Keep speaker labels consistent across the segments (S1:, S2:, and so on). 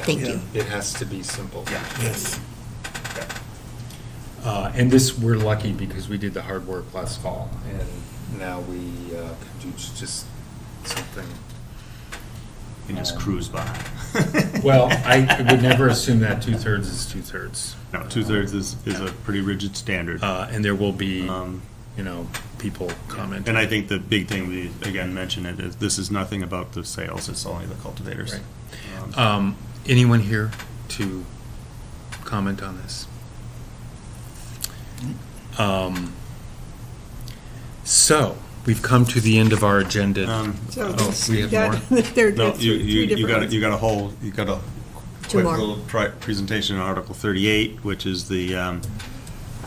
S1: Thank you.
S2: It has to be simple.
S3: Yes.
S2: Uh, And this, we're lucky because we did the hard work last fall, and now we uh, could do j- just something.
S4: and just
S2: Um,
S4: cruise by.
S2: Well, I would never assume that two-thirds is two-thirds.
S4: No, two-thirds is, is a pretty rigid standard.
S2: Uh, And there will be,
S4: Um,
S2: you know, people commenting.
S4: And I think the big thing, we, again, mention it, is this is nothing about the sales, it's only the cultivators.
S2: Right.
S4: Um,
S2: Um, Anyone here to comment on this? Um, So, we've come to the end of our agenda.
S4: Um,
S5: So
S2: Oh,
S5: it's-
S2: we have
S5: that-
S2: more?
S5: There are
S4: No, you,
S5: three three
S4: you, you got, a-
S5: different
S4: you got a whole, you got a
S1: Two
S4: quick
S1: more.
S4: little pri- presentation on Article thirty-eight, which is the, um,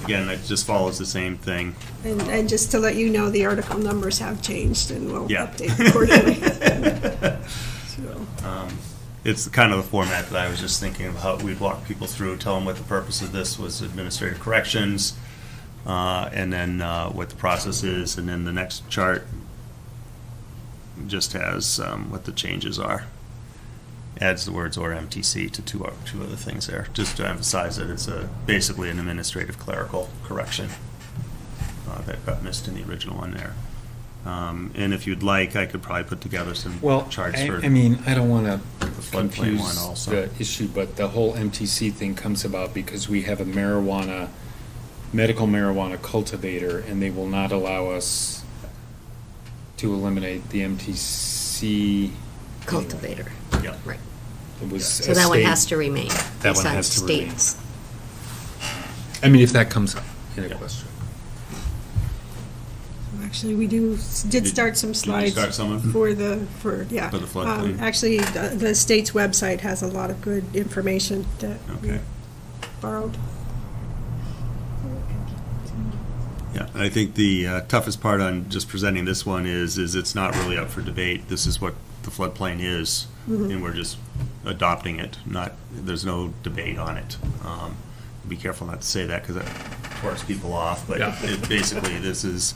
S4: again, that just follows the same thing.
S5: ones. And, and just to let you know, the article numbers have changed and we'll
S4: Yeah.
S5: update accordingly. So,
S4: Um, It's kind of the format that I was just thinking of how we'd walk people through, tell them what the purpose of this was administrative corrections, uh, and then, uh, what the process is, and then the next chart just has, um, what the changes are. Adds the words or MTC to two, o- two other things there, just to emphasize that it's a, basically an administrative clerical correction, uh, that got missed in the original one there. Um, and if you'd like, I could probably put together some
S2: Well,
S4: charts
S2: I,
S4: for.
S2: I mean, I don't want to
S4: floodplain one
S2: confuse
S4: also.
S2: the issue, but the whole MTC thing comes about because we have a marijuana, medical marijuana cultivator, and they will not allow us to eliminate the MTC.
S1: Cultivator.
S4: Yeah.
S1: Right.
S2: It was
S1: So
S2: a
S1: that one
S2: state-
S1: has to remain.
S2: That
S1: It's
S2: one
S1: on
S2: has to remain.
S1: states.
S2: I mean, if that comes up in a
S4: Yeah.
S2: question.
S5: Actually, we do, did start some
S4: Did you
S5: slides Mm-hmm.
S4: start some of them?
S5: for the, for, yeah.
S4: For the floodplain.
S5: Um, Actually, the the state's website has a lot of good information that we
S4: Okay.
S5: borrowed.
S4: Yeah, and I think the uh, toughest part on just presenting this one is, is it's not really up for debate. This is what the floodplain is,
S5: Mm-hmm.
S4: and we're just adopting it, not, there's no debate on it. Um, Be careful not to say that, because it torques people off, but
S2: Yeah.
S4: it- basically, this is,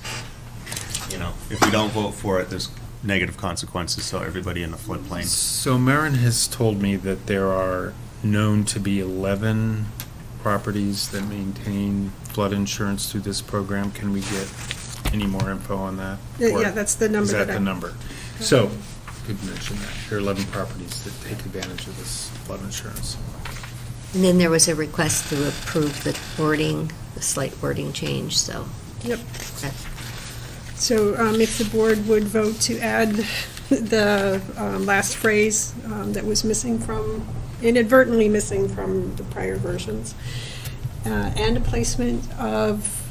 S4: you know, if we don't vote for it, there's negative consequences, so everybody in the floodplain.
S2: So Marin has told me that there are known to be 11 properties that maintain flood insurance through this program. Can we get any more info on that?
S5: Yeah,
S2: Or
S5: yeah, that's the number
S2: Is that
S5: that I-
S2: the number? So, could mention that, there are 11 properties that take advantage of this flood insurance.
S1: And then there was a request to approve the wording, the slight wording change, so
S5: Yep.
S1: that
S5: So um, if the board would vote to add the um, last phrase um, that was missing from, inadvertently missing from the prior versions, uh, and a placement of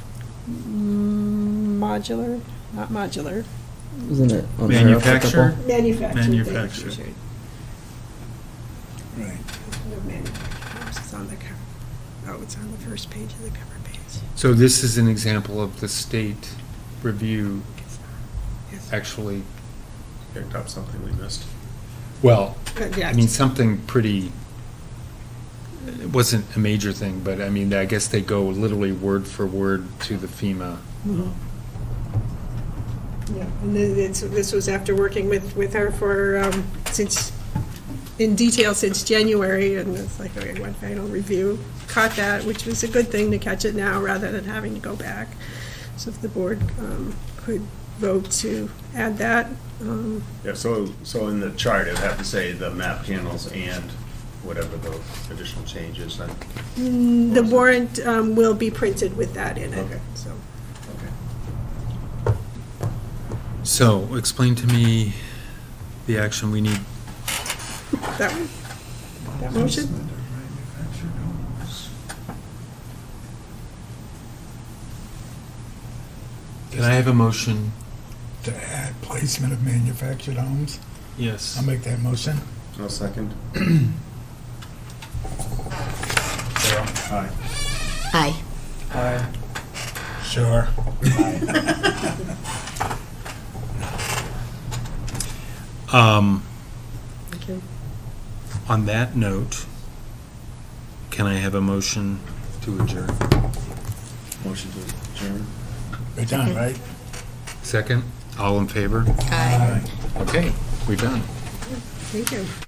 S5: modular, not modular,
S6: Isn't it? on there
S2: Manufacturer?
S6: applicable?
S5: manufactured. thank you,
S2: Manufactured.
S5: Richard.
S3: Right.
S5: No, manufactured, it's on the cover, oh, it's on the first page of the cover page.
S2: So this is an example of the state review
S5: Yes.
S2: actually,
S4: Picked up something we missed.
S2: well,
S5: But,
S2: I
S5: yeah,
S2: mean, something pretty, it wasn't a major thing, but I mean, I guess they go literally word for word to the FEMA.
S5: Yeah, and then it's, this was after working with, with her for, um, since, in detail since January, and it's like, okay, one final review. Caught that, which was a good thing to catch it now rather than having to go back. So if the board, um, could vote to add that, um,
S4: Yeah, so, so in the chart, I'd have to say the map panels and whatever the additional changes, I
S5: the warrant, um, will be printed with that in it,
S4: Okay.
S5: so.
S2: So explain to me the action we need.
S5: That one? That motion?
S2: Can I have a motion?
S3: To add placement of manufactured homes.
S2: Yes.
S3: I'll make that motion.
S4: No second.
S1: Aye.
S3: Sure.
S2: Um, on that note, can I have a motion to adjourn?
S4: Motion to adjourn.
S3: We're done, right?
S2: Second, all in favor?
S1: Aye.
S2: Okay, we're done.
S5: Thank you.